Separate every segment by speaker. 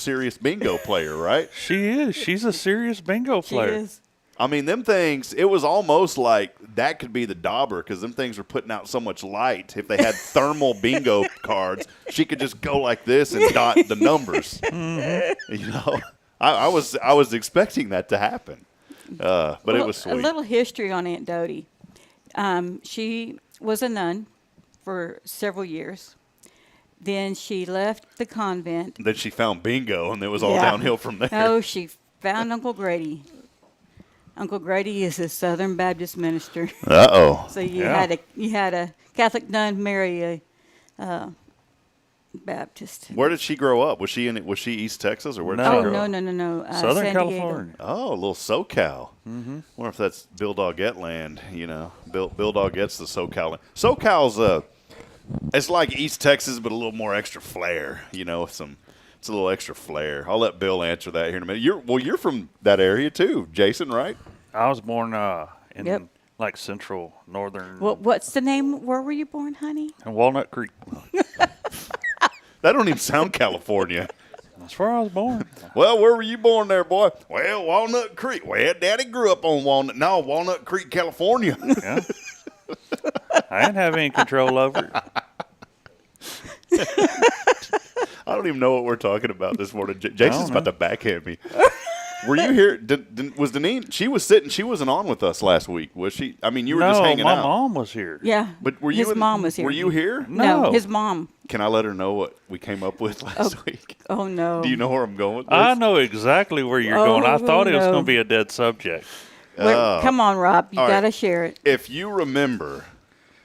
Speaker 1: serious bingo player, right?
Speaker 2: She is. She's a serious bingo
Speaker 3: She
Speaker 2: player.
Speaker 3: is.
Speaker 1: I mean, them things, it was almost like that could be the dauber because them things were putting out so much light. If they had thermal bingo cards, she could just go like this and dot the numbers. You know, I, I was I was expecting that to happen, uh, but it
Speaker 3: Well,
Speaker 1: was sweet.
Speaker 3: A little history on Aunt Dodie. Um, she was a nun for several years. Then she left the convent.
Speaker 1: Then she found bingo, and it was all
Speaker 3: Yeah. Oh.
Speaker 1: downhill from there.
Speaker 3: No, she found Uncle Grady. Uncle Grady is a Southern Baptist minister.
Speaker 1: Uh oh.
Speaker 3: So you
Speaker 2: Yeah.
Speaker 3: had a you had a Catholic nun marry a uh, Baptist.
Speaker 1: Where did she grow up? Was she in? Was she East Texas or where? Did
Speaker 2: No.
Speaker 1: she
Speaker 3: Oh
Speaker 1: grow
Speaker 3: no
Speaker 1: up?
Speaker 3: no no no! Uh,
Speaker 2: Southern
Speaker 3: San Diego.
Speaker 2: California.
Speaker 1: Oh, a little SoCal. Mm-hmm. wonder if that's Bill Doggett land. You know, Bill Bill Doggett's the SoCal. Land. SoCal's uh, it's like East Texas, but a little more extra flair. You know, with some it's a little extra flair. I'll let Bill answer that here in a minute. You're well, you're from that area too, Jason, right?
Speaker 2: I was born uh, in
Speaker 3: Yep.
Speaker 2: like central northern
Speaker 3: What what's the name? Where were you born, honey?
Speaker 2: Walnut Creek.
Speaker 1: That don't even sound California.
Speaker 2: That's where I was born.
Speaker 1: Well, where were you born there, boy? Well, Walnut Creek. Well, Daddy grew up on Walnut. No, Walnut Creek, California.
Speaker 2: Yeah. I didn't have any control over it.
Speaker 1: I don't even know what we're talking about this morning. J- Jason's
Speaker 2: know.
Speaker 1: about to backhand me. Were you here? Did, did, was Deneen? She was sitting. She wasn't on with us last week, was she? I mean, you were
Speaker 2: no,
Speaker 1: just hanging
Speaker 2: my
Speaker 1: out.
Speaker 2: mom was here.
Speaker 3: Yeah.
Speaker 1: But were you?
Speaker 3: his
Speaker 1: in-
Speaker 3: mom was here?
Speaker 1: Were you here?
Speaker 3: No.
Speaker 2: No.
Speaker 3: his mom.
Speaker 1: Can I let her know what we came up with last week?
Speaker 3: Oh no.
Speaker 1: Do you know where I'm going with this?
Speaker 2: I know exactly where you're going. I
Speaker 3: Oh,
Speaker 2: thought it was
Speaker 3: no.
Speaker 2: going to be a dead subject.
Speaker 3: Where- come on, Rob. You
Speaker 1: Oh. All right.
Speaker 3: gotta share it.
Speaker 1: If you remember,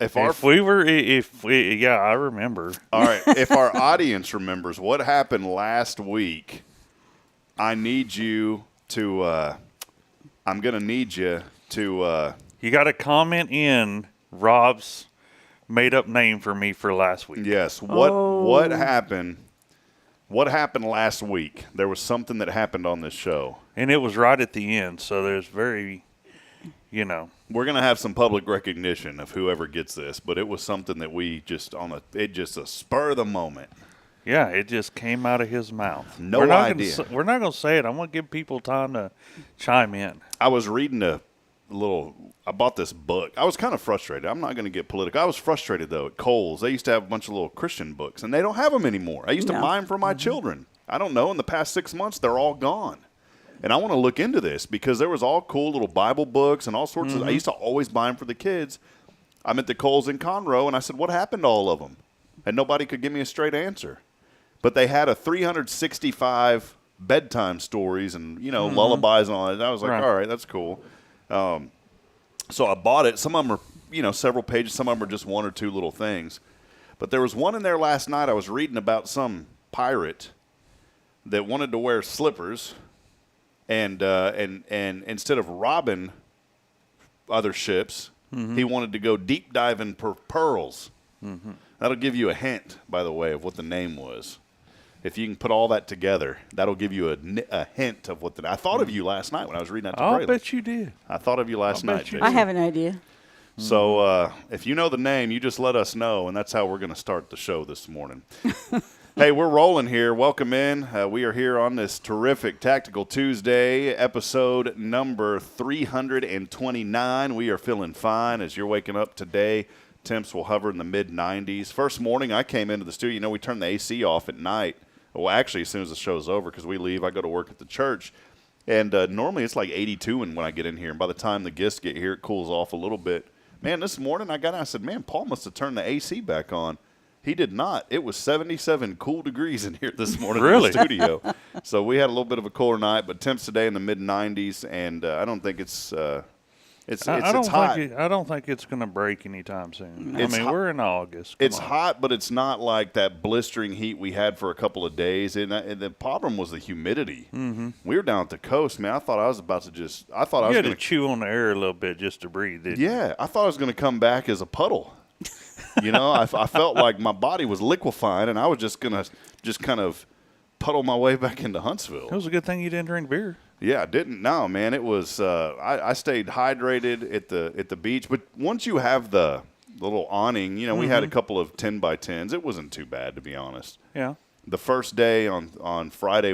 Speaker 1: if our
Speaker 2: If we were, i- if we, yeah, I remember.
Speaker 1: all right, if our audience remembers what happened last week, I need you to. Uh, I'm gonna need you to. Uh,
Speaker 2: You got to comment in Rob's made up name for me for last week.
Speaker 1: Yes. What what happened? What happened last week? There was something that happened on this show.
Speaker 2: And it was right at the end. So there's very, you know,
Speaker 1: We're gonna have some public recognition of whoever gets this, but it was something that we just on a it just a spur of the moment.
Speaker 2: yeah, it just came out of his mouth.
Speaker 1: No
Speaker 2: we're not
Speaker 1: idea.
Speaker 2: Gonna, s- we're not going to say it. I'm going to give people time to chime in.
Speaker 1: I was reading a little. I bought this book. I was kind of frustrated. I'm not going to get political. I was frustrated though at Kohl's. They used to have a bunch of little Christian books, and they don't have them anymore. I used to
Speaker 3: No.
Speaker 1: buy them for my children. I don't know. In the past six months, they're all gone. And I want to look into this because there was all cool little Bible books and all sorts of. I used to always buy them for the kids. I'm at the Coles in Conroe, and I said, "What happened to all of them?" And nobody could give me a straight answer. But they had a 365 bedtime stories and you know lullabies and all that. And I was like,
Speaker 2: Right.
Speaker 1: "All right, that's cool." Um, so I bought it. Some of them are you know several pages. Some of them are just one or two little things. But there was one in there last night. I was reading about some pirate that wanted to wear slippers, and uh, and and instead of robbing other ships,
Speaker 2: Mm-hmm.
Speaker 1: he wanted to go deep diving for pearls. That'll give you a hint, by the way, of what the name was. If you can put all that together, that'll give you a, ni- a hint of what the. I thought of you last night when I was reading that to
Speaker 2: Mm-hmm. I'll
Speaker 1: Braylon.
Speaker 2: bet you did.
Speaker 1: I thought of you last
Speaker 2: I'll bet
Speaker 1: night.
Speaker 2: you
Speaker 1: Jason.
Speaker 3: I have an idea.
Speaker 1: So uh, if you know the name, you just let us know, and that's how we're going to start the show this morning. hey, we're rolling here. Welcome in. Uh, we are here on this terrific Tactical Tuesday, episode number 329. We are feeling fine as you're waking up today. Temps will hover in the mid 90s. First morning, I came into the studio. You know, we turn the AC off at night. Well, actually, as soon as the show's over, because we leave, I go to work at the church. And uh, normally it's like 82 and when I get in here. And by the time the guests get here, it cools off a little bit. Man, this morning I got out. I said, man, Paul must have turned the AC back on. He did not. It was 77 cool degrees in here this morning
Speaker 2: Really?
Speaker 1: in the studio. so we had a little bit of a cooler night, but temps today in the mid 90s. And uh, I don't think it's. Uh, it's, it's,
Speaker 2: I, I don't
Speaker 1: it's hot.
Speaker 2: think it, I don't think it's going to break anytime soon.
Speaker 1: It's
Speaker 2: I mean,
Speaker 1: hot-
Speaker 2: we're in August. Come
Speaker 1: It's
Speaker 2: on.
Speaker 1: hot, but it's not like that blistering heat we had for a couple of days. And, I- and the problem was the humidity. Mm-hmm. We were down at the coast, man. I thought I was about to just. I thought I
Speaker 2: You
Speaker 1: was
Speaker 2: had
Speaker 1: going
Speaker 2: to chew on the air a little bit just to breathe. Didn't you?
Speaker 1: Yeah, I thought I was going to come back as a puddle. You know, I, I felt like my body was liquefying, and I was just going to just kind of puddle my way back into Huntsville.
Speaker 2: It was a good thing you didn't drink beer.
Speaker 1: Yeah, I didn't. No, man, it was. Uh, I, I stayed hydrated at the at the beach, but once you have the little awning, you know, we had a couple of ten by tens. It wasn't too bad, to be honest.
Speaker 2: Yeah.
Speaker 1: The first day on on Friday